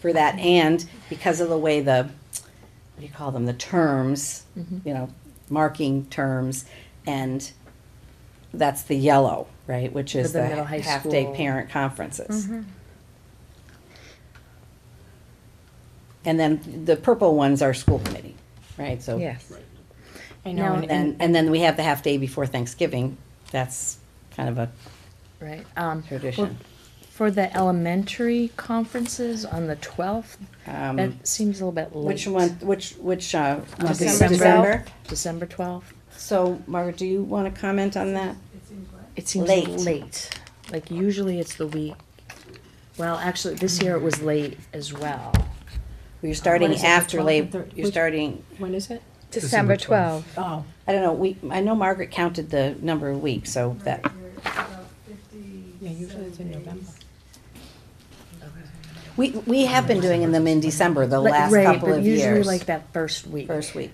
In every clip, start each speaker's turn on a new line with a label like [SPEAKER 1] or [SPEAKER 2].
[SPEAKER 1] for that, and because of the way the, what do you call them, the terms,
[SPEAKER 2] Mm-hmm.
[SPEAKER 1] you know, marking terms, and that's the yellow, right, which is
[SPEAKER 2] the
[SPEAKER 1] the
[SPEAKER 2] middle high
[SPEAKER 1] half-day
[SPEAKER 2] school. Mm-hmm.
[SPEAKER 1] parent conferences. And then the purple ones are school committee, right, so.
[SPEAKER 2] Yes.
[SPEAKER 3] I
[SPEAKER 2] Now
[SPEAKER 3] know, and,
[SPEAKER 2] and
[SPEAKER 3] and,
[SPEAKER 1] And, and then we have the half-day before Thanksgiving, that's kind of a
[SPEAKER 2] Right. Um,
[SPEAKER 1] tradition.
[SPEAKER 2] for the elementary conferences on the twelfth,
[SPEAKER 1] Um,
[SPEAKER 2] that seems a little bit late.
[SPEAKER 1] Which one, which, which, uh, month is
[SPEAKER 2] December.
[SPEAKER 1] December?
[SPEAKER 2] December twelfth.
[SPEAKER 1] So, Margaret, do you want to comment on that?
[SPEAKER 2] It seems
[SPEAKER 1] Late.
[SPEAKER 2] late. Like usually it's the week. Well, actually, this year it was late as well.
[SPEAKER 1] You're starting
[SPEAKER 3] is it, the
[SPEAKER 1] after
[SPEAKER 3] 12th and
[SPEAKER 1] Labor,
[SPEAKER 3] thir-
[SPEAKER 1] you're
[SPEAKER 3] which-
[SPEAKER 1] starting,
[SPEAKER 3] when is it?
[SPEAKER 4] December twelfth.
[SPEAKER 3] Oh,
[SPEAKER 1] I don't know, we, I know Margaret counted the number of weeks, so that,
[SPEAKER 3] yeah, usually it's in November.
[SPEAKER 1] we, we have been doing them in December, the
[SPEAKER 2] Like,
[SPEAKER 1] last
[SPEAKER 2] right,
[SPEAKER 1] couple
[SPEAKER 2] but
[SPEAKER 1] of
[SPEAKER 2] Usually
[SPEAKER 1] years.
[SPEAKER 2] like that first week.
[SPEAKER 1] First week.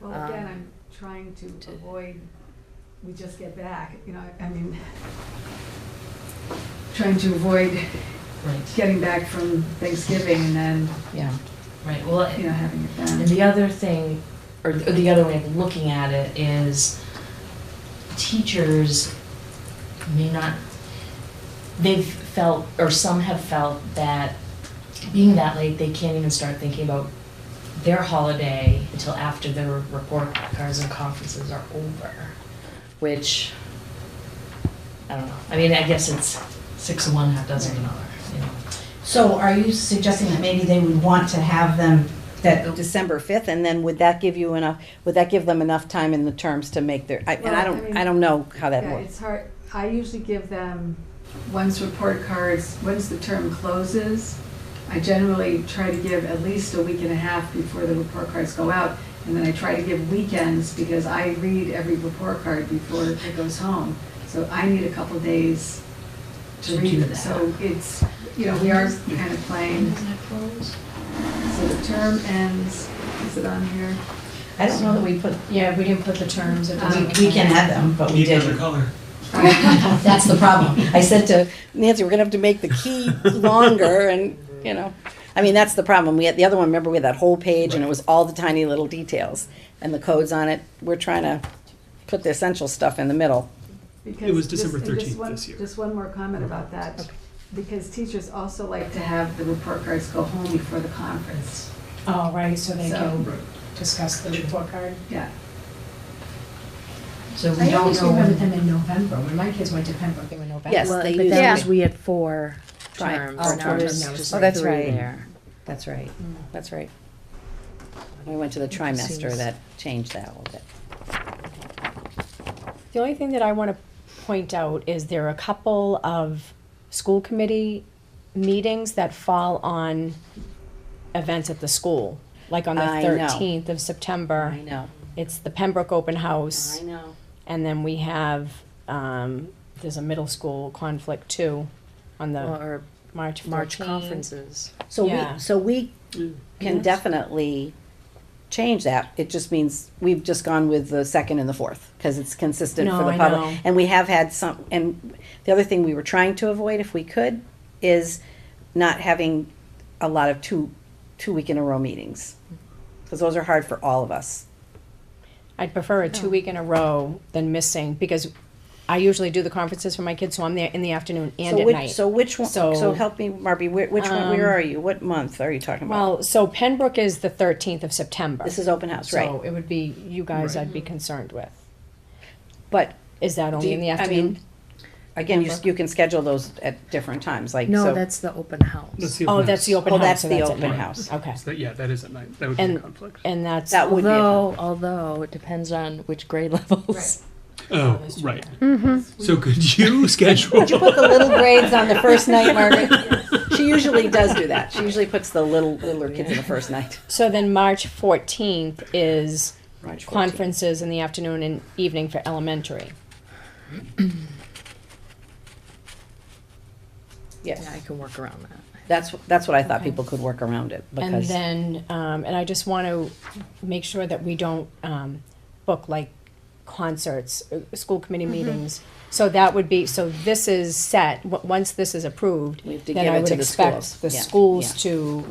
[SPEAKER 5] Well, again, I'm trying to avoid, we just get back, you know, I mean, trying to avoid
[SPEAKER 6] Right,
[SPEAKER 5] getting back from Thanksgiving and then,
[SPEAKER 6] yeah, right, well,
[SPEAKER 5] you know, having it
[SPEAKER 6] and
[SPEAKER 5] then.
[SPEAKER 6] the other thing, or th- or the other way of looking at it is teachers may not, they've felt, or some have felt that being that late, they can't even start thinking about their holiday until after their report cards and conferences are over, which, I don't know, I mean, I guess it's six of one, half dozen of another, you know.
[SPEAKER 7] So are you suggesting that maybe they would want to have them, that,
[SPEAKER 1] December fifth, and then would that give you enough, would that give them enough time in the terms to make their, I, and I
[SPEAKER 5] Well, I
[SPEAKER 1] don't,
[SPEAKER 5] mean-
[SPEAKER 1] I don't know how that
[SPEAKER 5] Yeah,
[SPEAKER 1] works.
[SPEAKER 5] it's hard, I usually give them, once report cards, once the term closes, I generally try to give at least a week and a half before the report cards go out. And then I try to give weekends because I read every report card before it goes home. So I need a couple days to
[SPEAKER 6] To
[SPEAKER 5] read
[SPEAKER 6] do
[SPEAKER 5] it.
[SPEAKER 6] that.
[SPEAKER 5] So it's, you know, we are kind of playing, so the term ends, is it on here?
[SPEAKER 7] I don't know that we put,
[SPEAKER 3] Yeah, we didn't put the terms. it
[SPEAKER 7] we,
[SPEAKER 3] doesn't-
[SPEAKER 7] we can have them, but we
[SPEAKER 8] Need another
[SPEAKER 7] didn't.
[SPEAKER 8] color.
[SPEAKER 7] That's the problem. I said to
[SPEAKER 1] Nancy, we're gonna have to make the key longer and, you know, I mean, that's the problem. We had, the other one, remember, we had that whole page and it was all the tiny little details and the codes on it. We're trying to put the essential stuff in the middle.
[SPEAKER 5] Because
[SPEAKER 8] It was
[SPEAKER 5] just-
[SPEAKER 8] December
[SPEAKER 5] and just
[SPEAKER 8] 13th
[SPEAKER 5] one-
[SPEAKER 8] this year.
[SPEAKER 5] Just one more comment about that, because teachers also like to have the report cards go home before the conference,
[SPEAKER 3] Oh, right, so they
[SPEAKER 5] So-
[SPEAKER 3] can discuss the report card.
[SPEAKER 5] yeah.
[SPEAKER 6] So we
[SPEAKER 3] I
[SPEAKER 6] don't
[SPEAKER 3] always
[SPEAKER 6] know.
[SPEAKER 3] remember them in November, when my kids went to Pembroke, they were November.
[SPEAKER 1] Yes,
[SPEAKER 2] Well,
[SPEAKER 1] they
[SPEAKER 2] but
[SPEAKER 1] use
[SPEAKER 2] that
[SPEAKER 1] it.
[SPEAKER 2] was, we had four
[SPEAKER 1] Right.
[SPEAKER 2] terms,
[SPEAKER 3] Oh,
[SPEAKER 2] now there's
[SPEAKER 3] terms.
[SPEAKER 2] just
[SPEAKER 3] Oh,
[SPEAKER 2] three
[SPEAKER 3] that's
[SPEAKER 1] right.
[SPEAKER 2] there.
[SPEAKER 1] That's right. That's right. We went to the trimester that changed that a little bit.
[SPEAKER 3] The only thing that I want to point out is there are a couple of school committee meetings that fall on events at the school, like on the
[SPEAKER 1] I know.
[SPEAKER 3] thirteenth of September.
[SPEAKER 1] I know.
[SPEAKER 3] It's the Pembroke Open House,
[SPEAKER 1] know.
[SPEAKER 3] and then we have, um, there's a middle school conflict too, on the
[SPEAKER 2] Or
[SPEAKER 3] March
[SPEAKER 2] March
[SPEAKER 3] conference.
[SPEAKER 2] conferences.
[SPEAKER 1] So
[SPEAKER 3] Yeah.
[SPEAKER 1] we, so we
[SPEAKER 3] Mm.
[SPEAKER 1] can
[SPEAKER 3] Yes.
[SPEAKER 1] definitely change that. It just means we've just gone with the second and the fourth because it's consistent for
[SPEAKER 3] No,
[SPEAKER 1] the
[SPEAKER 3] I
[SPEAKER 1] public.
[SPEAKER 3] know.
[SPEAKER 1] And we have had some, and the other thing we were trying to avoid if we could is not having a lot of two, two week in a row meetings. Because those are hard for all of us.
[SPEAKER 3] I'd prefer
[SPEAKER 1] Oh.
[SPEAKER 3] a two week in a row than missing, because I usually do the conferences for my kids, so I'm there in the afternoon and
[SPEAKER 1] So
[SPEAKER 3] at
[SPEAKER 1] which-
[SPEAKER 3] night.
[SPEAKER 1] So which one,
[SPEAKER 3] So-
[SPEAKER 1] so help me, Marby, where- which one, where
[SPEAKER 3] Um,
[SPEAKER 1] are you? What month are you talking about?
[SPEAKER 3] Well, so Pembroke is the thirteenth of September.
[SPEAKER 1] This is open house, right?
[SPEAKER 3] So it would be you guys I'd be concerned with.
[SPEAKER 1] But
[SPEAKER 3] Is that
[SPEAKER 1] Do
[SPEAKER 3] only in the
[SPEAKER 1] you- I
[SPEAKER 3] afternoon?
[SPEAKER 1] mean, Again, you, s- you can schedule those at different times, like, so.
[SPEAKER 2] No, that's the open
[SPEAKER 8] That's
[SPEAKER 2] house.
[SPEAKER 8] the
[SPEAKER 3] Oh,
[SPEAKER 8] open
[SPEAKER 3] that's the
[SPEAKER 8] house.
[SPEAKER 3] open
[SPEAKER 1] Oh,
[SPEAKER 3] house.
[SPEAKER 1] that's
[SPEAKER 3] so
[SPEAKER 1] the
[SPEAKER 3] at
[SPEAKER 1] open
[SPEAKER 3] night.
[SPEAKER 1] house.
[SPEAKER 3] Okay.
[SPEAKER 8] So that- Yeah, that is at night. That would be a
[SPEAKER 3] And-
[SPEAKER 8] conflict.
[SPEAKER 3] And that's
[SPEAKER 1] That would be a
[SPEAKER 2] Although, although it depends on which grade levels.
[SPEAKER 8] Oh, right. So could you schedule?
[SPEAKER 1] Did you put the little grades on the first night, Margaret? She usually does do that. She usually puts the little, littler kids in the first night.
[SPEAKER 3] So then March fourteenth is
[SPEAKER 1] March 14th.
[SPEAKER 3] conferences in the afternoon and evening for elementary.
[SPEAKER 2] Yeah, I
[SPEAKER 1] Yes,
[SPEAKER 2] can work around that.
[SPEAKER 1] that's, that's what I thought
[SPEAKER 3] Okay.
[SPEAKER 1] people could work around it,
[SPEAKER 3] And
[SPEAKER 1] because,
[SPEAKER 3] then, um, and I just want to make sure that we don't, um, book like concerts, uh, school committee meetings. So that would be, so this is set, w- once this is approved,
[SPEAKER 1] We have to
[SPEAKER 3] then
[SPEAKER 1] give
[SPEAKER 3] I
[SPEAKER 1] it
[SPEAKER 3] would
[SPEAKER 1] to the
[SPEAKER 3] expect
[SPEAKER 1] schools.
[SPEAKER 3] the
[SPEAKER 1] Yeah,
[SPEAKER 3] schools
[SPEAKER 1] yeah.
[SPEAKER 3] to